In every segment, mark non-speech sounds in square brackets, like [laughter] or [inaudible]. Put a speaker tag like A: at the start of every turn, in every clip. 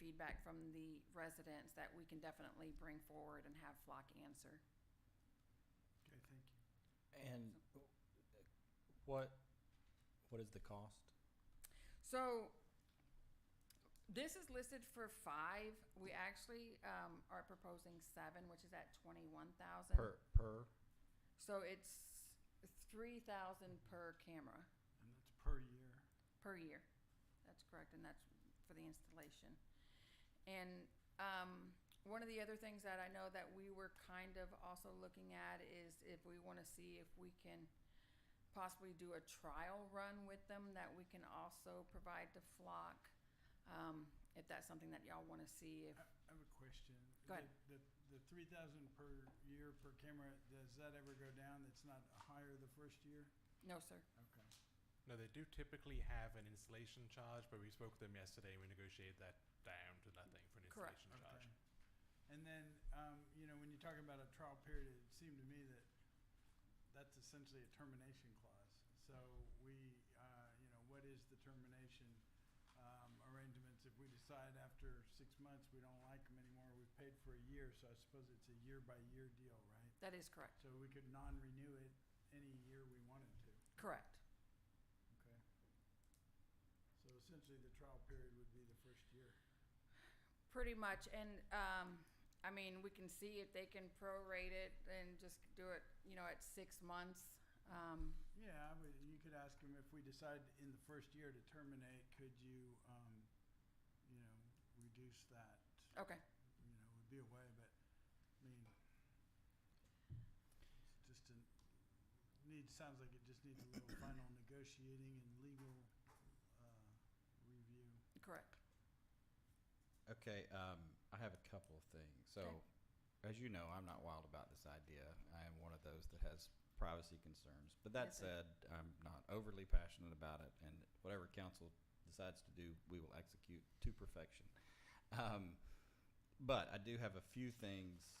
A: feedback from the residents that we can definitely bring forward and have Flock answer.
B: Okay, thank you.
C: And what, what is the cost?
A: So this is listed for five. We actually um, are proposing seven, which is at twenty-one thousand.
C: Per, per,
A: So it's three thousand per camera,
B: And that's per year.
A: per year. That's correct, and that's for the installation. And um, one of the other things that I know that we were kind of also looking at is if we want to see if we can possibly do a trial run with them that we can also provide to Flock. Um, If that's something that y'all want to see, if,
B: I I have a question.
A: Go ahead.
B: The, the three thousand per year per camera, does that ever go down? That's not higher the first year?
A: no, sir.
B: Okay.
D: No, they do typically have an installation charge, but we spoke with them yesterday and we negotiated that down to nothing for an
A: Correct.
D: installation charge.
B: Okay. And then, um, you know, when you talk about a trial period, it seemed to me that that's essentially a termination clause. So we, uh, you know, what is the termination, um, arrangements if we decide after six months we don't like them anymore, we've paid for a year, so I suppose it's a year by year deal, right?
A: That is correct.
B: So we could non-renew it any year we wanted to,
A: Correct.
B: okay? So essentially the trial period would be the first year.
A: Pretty much, and, um, I mean, we can see if they can prorate it and just do it, you know, at six months. Um,
B: Yeah, I would- you could ask them if we decide in the first year to terminate, could you, um, you know, reduce that?
A: okay,
B: You know, would be a way, but, I mean, it's just a, need, sounds like it just needs a little final negotiating and legal, uh, review.
A: correct.
E: Okay, um, I have a couple of things. So,
A: Okay.
E: as you know, I'm not wild about this idea. I am one of those that has privacy concerns. But that
A: Yes, sir.
E: said, I'm not overly passionate about it, and whatever council decides to do, we will execute to perfection. Um, but I do have a few things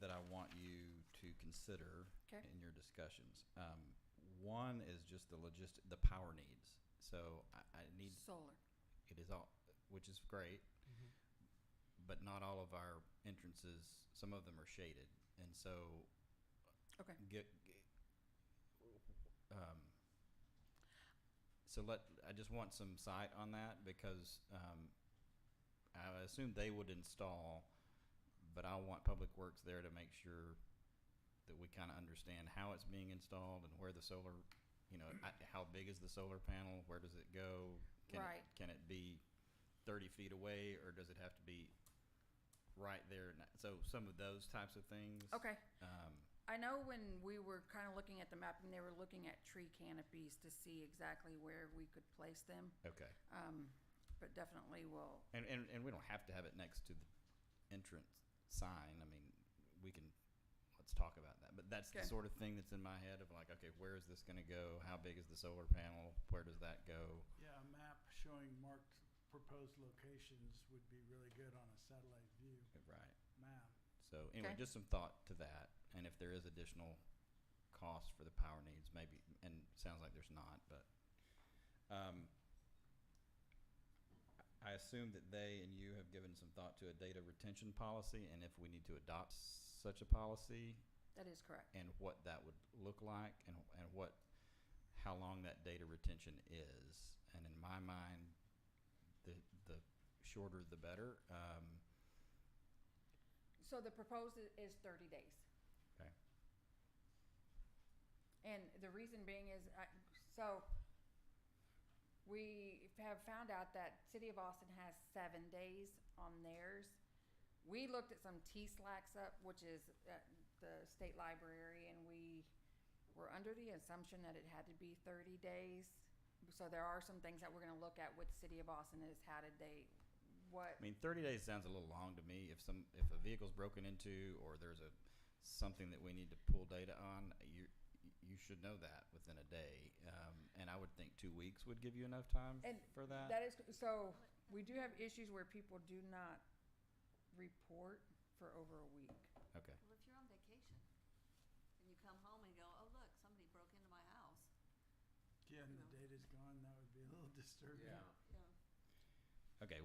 E: that I want you to consider
A: Okay.
E: in your discussions. Um, one is just the logistic, the power needs. So I, I need
A: Solar,
E: it is all, which is great but not all of our entrances. Some of them are shaded, and so
A: okay.
E: get. get- um, so let I just want some sight on that because um, I assume they would install, but I want Public Works there to make sure that we kind of understand how it's being installed and where the solar, you know, I, how big is the solar panel? Where does it go? Can
A: Right.
E: It, can it be thirty feet away, or does it have to be right there? And So some of those types of things.
A: Okay.
E: Um,
A: I know when we were kind of looking at the map and they were looking at tree canopies to see exactly where we could place them.
E: okay.
A: Um, but definitely will,
E: And, and, and we don't have to have it next to the entrance sign. I mean, we can, let's talk about that. But that's the
A: Okay.
E: sort of thing that's in my head of like, okay, where is this gonna go? How big is the solar panel? Where does that go?
B: Yeah, a map showing marked proposed locations would be really good on a satellite view
E: Right.
B: map.
E: So anyway,
A: Okay.
E: just some thought to that. And if there is additional cost for the power needs, maybe, and it sounds like there's not, but, um, I assume that they and you have given some thought to a data retention policy and if we need to adopt such a policy
A: that is correct.
E: and what that would look like and, and what, how long that data retention is. And in my mind, the, the shorter the better. Um,
A: So the proposed i- is thirty days.
E: okay.
A: And the reason being is, I, so we have found out that City of Austin has seven days on theirs. We looked at some T slacks up, which is at the state library, and we were under the assumption that it had to be thirty days. So there are some things that we're gonna look at with City of Austin is how did they, what,
E: I mean, 30 days sounds a little long to me. If some, if a vehicle's broken into or there's a, something that we need to pull data on, you, you should know that within a day. Um, and I would think two weeks would give you enough time
A: And
E: for
A: that is, so, we do have issues where people do not report for over a week.
E: okay.
F: Well, if you're on vacation and you come home and you go, oh, look, somebody broke into my house,
B: Yeah, and the
F: No.
B: data's gone, that would be a little [laughs] disturbing.
F: you know.
E: Okay.